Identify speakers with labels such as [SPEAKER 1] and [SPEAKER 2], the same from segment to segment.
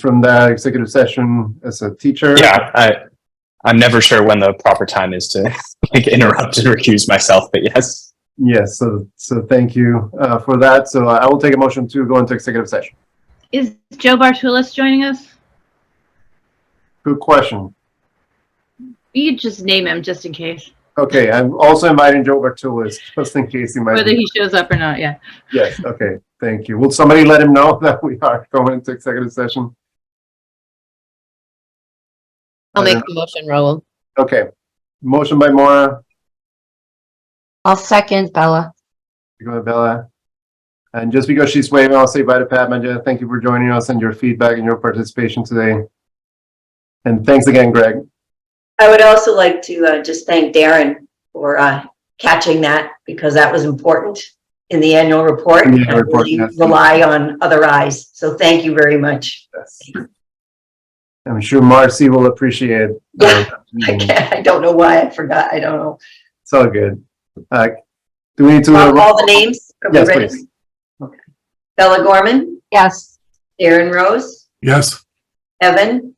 [SPEAKER 1] from that executive session as a teacher.
[SPEAKER 2] yeah, I, I'm never sure when the proper time is to like, interrupt and recuse myself, but yes.
[SPEAKER 1] Yes, so, so thank you uh, for that. So I will take a motion to go into executive session.
[SPEAKER 3] Is Joe Bartulis joining us?
[SPEAKER 1] Good question.
[SPEAKER 3] You could just name him just in case,
[SPEAKER 1] Okay, I'm also inviting Joe Bartulis, just in case he might.
[SPEAKER 3] whether he shows up or not, yeah.
[SPEAKER 1] Yes, okay, thank you. Will somebody let him know that we are going into executive session?
[SPEAKER 4] I'll
[SPEAKER 1] I
[SPEAKER 4] make the motion, Raul.
[SPEAKER 1] Okay, motion by Mora,
[SPEAKER 4] I'll second Bella.
[SPEAKER 1] second by Bella. And just because she's waving, I'll say bye to Pat Majda. Thank you for joining us and your feedback and your participation today. And thanks again, Greg.
[SPEAKER 5] I would also like to uh, just thank Darren for uh, catching that because that was important in the annual report.
[SPEAKER 1] In the annual
[SPEAKER 5] and
[SPEAKER 1] report,
[SPEAKER 5] we
[SPEAKER 1] yes.
[SPEAKER 5] Rely on other eyes. So thank you very much.
[SPEAKER 1] Yes. I'm sure Marcy will appreciate. uh,
[SPEAKER 5] I can't- I don't know why I forgot. I don't know.
[SPEAKER 1] It's all good. Uh, Do we need to?
[SPEAKER 5] All all the names? Are we
[SPEAKER 1] Yes,
[SPEAKER 5] ready?
[SPEAKER 1] please.
[SPEAKER 5] Okay. Bella Gorman,
[SPEAKER 4] Yes.
[SPEAKER 5] Darren Rose,
[SPEAKER 6] Yes.
[SPEAKER 5] Evan,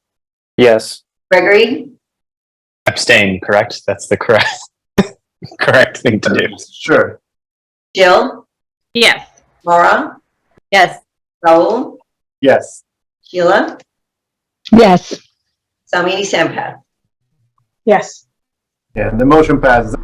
[SPEAKER 2] Yes.
[SPEAKER 5] Gregory,
[SPEAKER 2] Abstain, correct? That's the correct, correct thing to do.
[SPEAKER 1] Sure.
[SPEAKER 5] Jill,
[SPEAKER 3] Yes.
[SPEAKER 5] Maura,
[SPEAKER 4] Yes.
[SPEAKER 5] Raul,
[SPEAKER 1] Yes.
[SPEAKER 5] Sheila,
[SPEAKER 4] Yes.
[SPEAKER 5] Samini Sampath.
[SPEAKER 7] Yes.
[SPEAKER 1] Yeah, the motion passes.